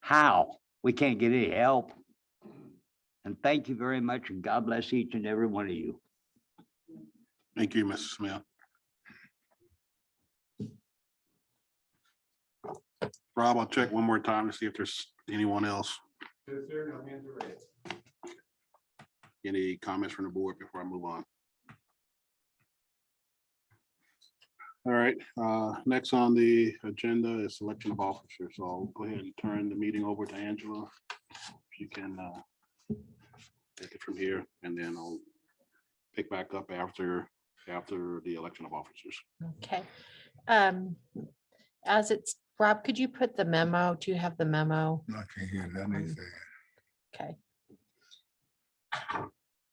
how? We can't get any help. And thank you very much and God bless each and every one of you. Thank you, Mr. Smith. Rob, I'll check one more time to see if there's anyone else. Any comments from the board before I move on? All right, uh, next on the agenda is selection of officers. So I'll go ahead and turn the meeting over to Angela. If you can, uh, take it from here and then I'll pick back up after, after the election of officers. Okay. Um, As it's, Rob, could you put the memo? Do you have the memo? I can't hear Um, nothing. Okay.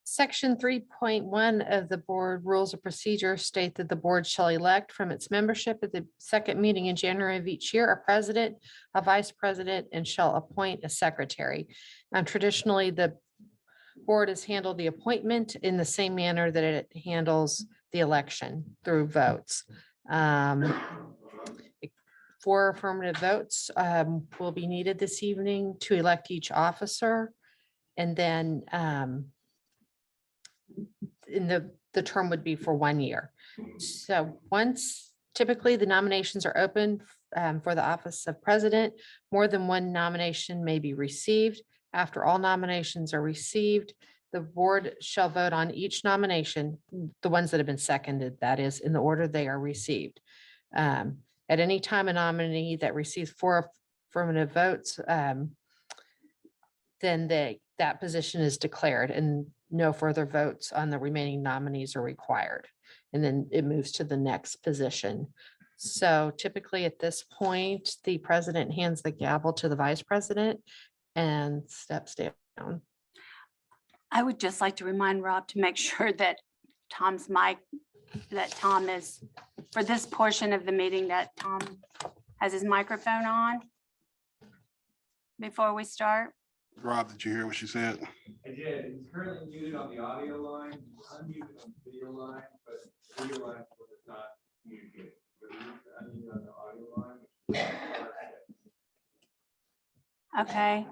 Section three point one of the board rules of procedure state that the board shall elect from its membership at the second meeting in January of each year, a president, a vice president, and shall appoint a secretary. And traditionally, the board has handled the appointment in the same manner that it handles the election through votes. Um, Four affirmative votes um, will be needed this evening to elect each officer. And then um, in the, the term would be for one year. So once typically the nominations are open um, for the office of president, more than one nomination may be received. After all nominations are received, the board shall vote on each nomination, the ones that have been seconded, that is, in the order they are received. Um, at any time, a nominee that receives four affirmative votes, um, then they, that position is declared and no further votes on the remaining nominees are required. And then it moves to the next position. So typically at this point, the president hands the gavel to the vice president and steps down. I would just like to remind Rob to make sure that Tom's mic, that Tom is, for this portion of the meeting, that Tom has his microphone on before we start. Rob, did you hear what she said? I did. He's currently muted on the audio line, he's unmuted on the video line, but the video line was not muted. But he's Unmuted on the audio line. which is not- Okay,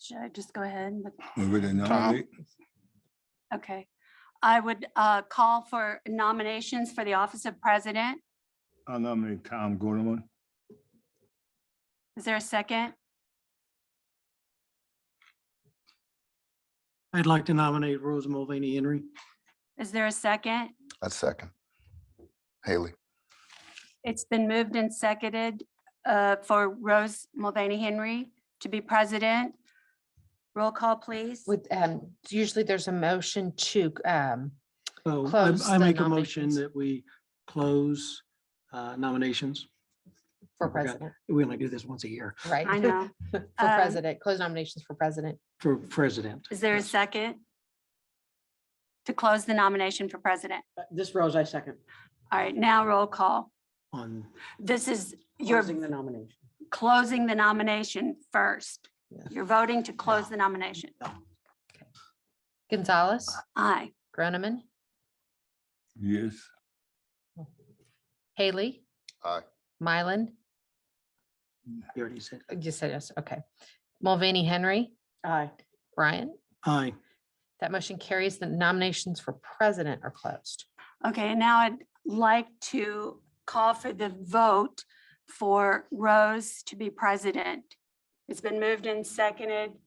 should I just go ahead? and look? We really nominate. Okay. I would uh, call for nominations for the office of president. I nominate Tom Goodman. Is there a second? I'd like to nominate Rose Mulvaney Henry. Is there a second? A second. Haley, It's been moved and seconded uh, for Rose Mulvaney Henry to be president. Roll call, please. With, um, usually there's a motion to, um, So I- Close I the make a motion nominations. that we close uh, nominations. for I forgot. president, We only do this once a year right? I know. For Um, president, close nominations for president. for president. Is there a Yes. second? To close the nomination for president. Uh, This Rose, I second, All right, now roll call. On, This is, you're closing the nomination. closing the nomination first. Yeah. You're voting to close the nomination. Gonzalez, Aye. Groneman, Yes. Haley. Aye. Mylan, you already said, you said yes, okay. Mulvaney Henry, Aye. Bryant. aye. That motion carries. The nominations for president are closed. Okay, and now I'd like to call for the vote for Rose to be president. It's been moved and seconded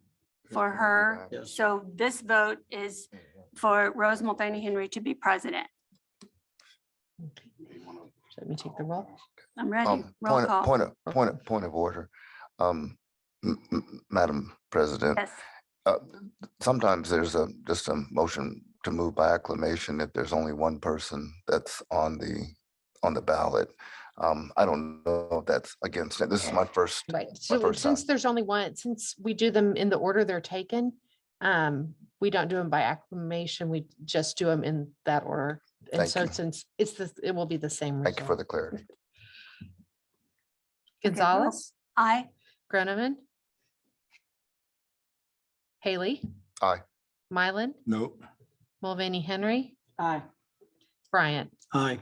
for her. Yes. So this vote is for Rose Mulvaney Henry to be president. So Let me take the roll. I'm ready. um, Roll point, of- call. point of, point of, point of order. Um, m- m- Madam President, Yes, uh, sometimes there's a, just a motion to move by acclamation if there's only one person that's on the, on the ballot. Um, I don't know if that's against it. This is my first, Right. So first time. since there's only one, since we do them in the order they're taken, um, we don't do them by acclamation. We just do them in that order. And Thank so you. since it's the, it will be the same. thank you for result. the clarity. Okay, roll. Gonzalez, aye. Groneman. Haley. Aye. Mylan, No. Mulvaney Henry, Aye. Bryant. Aye.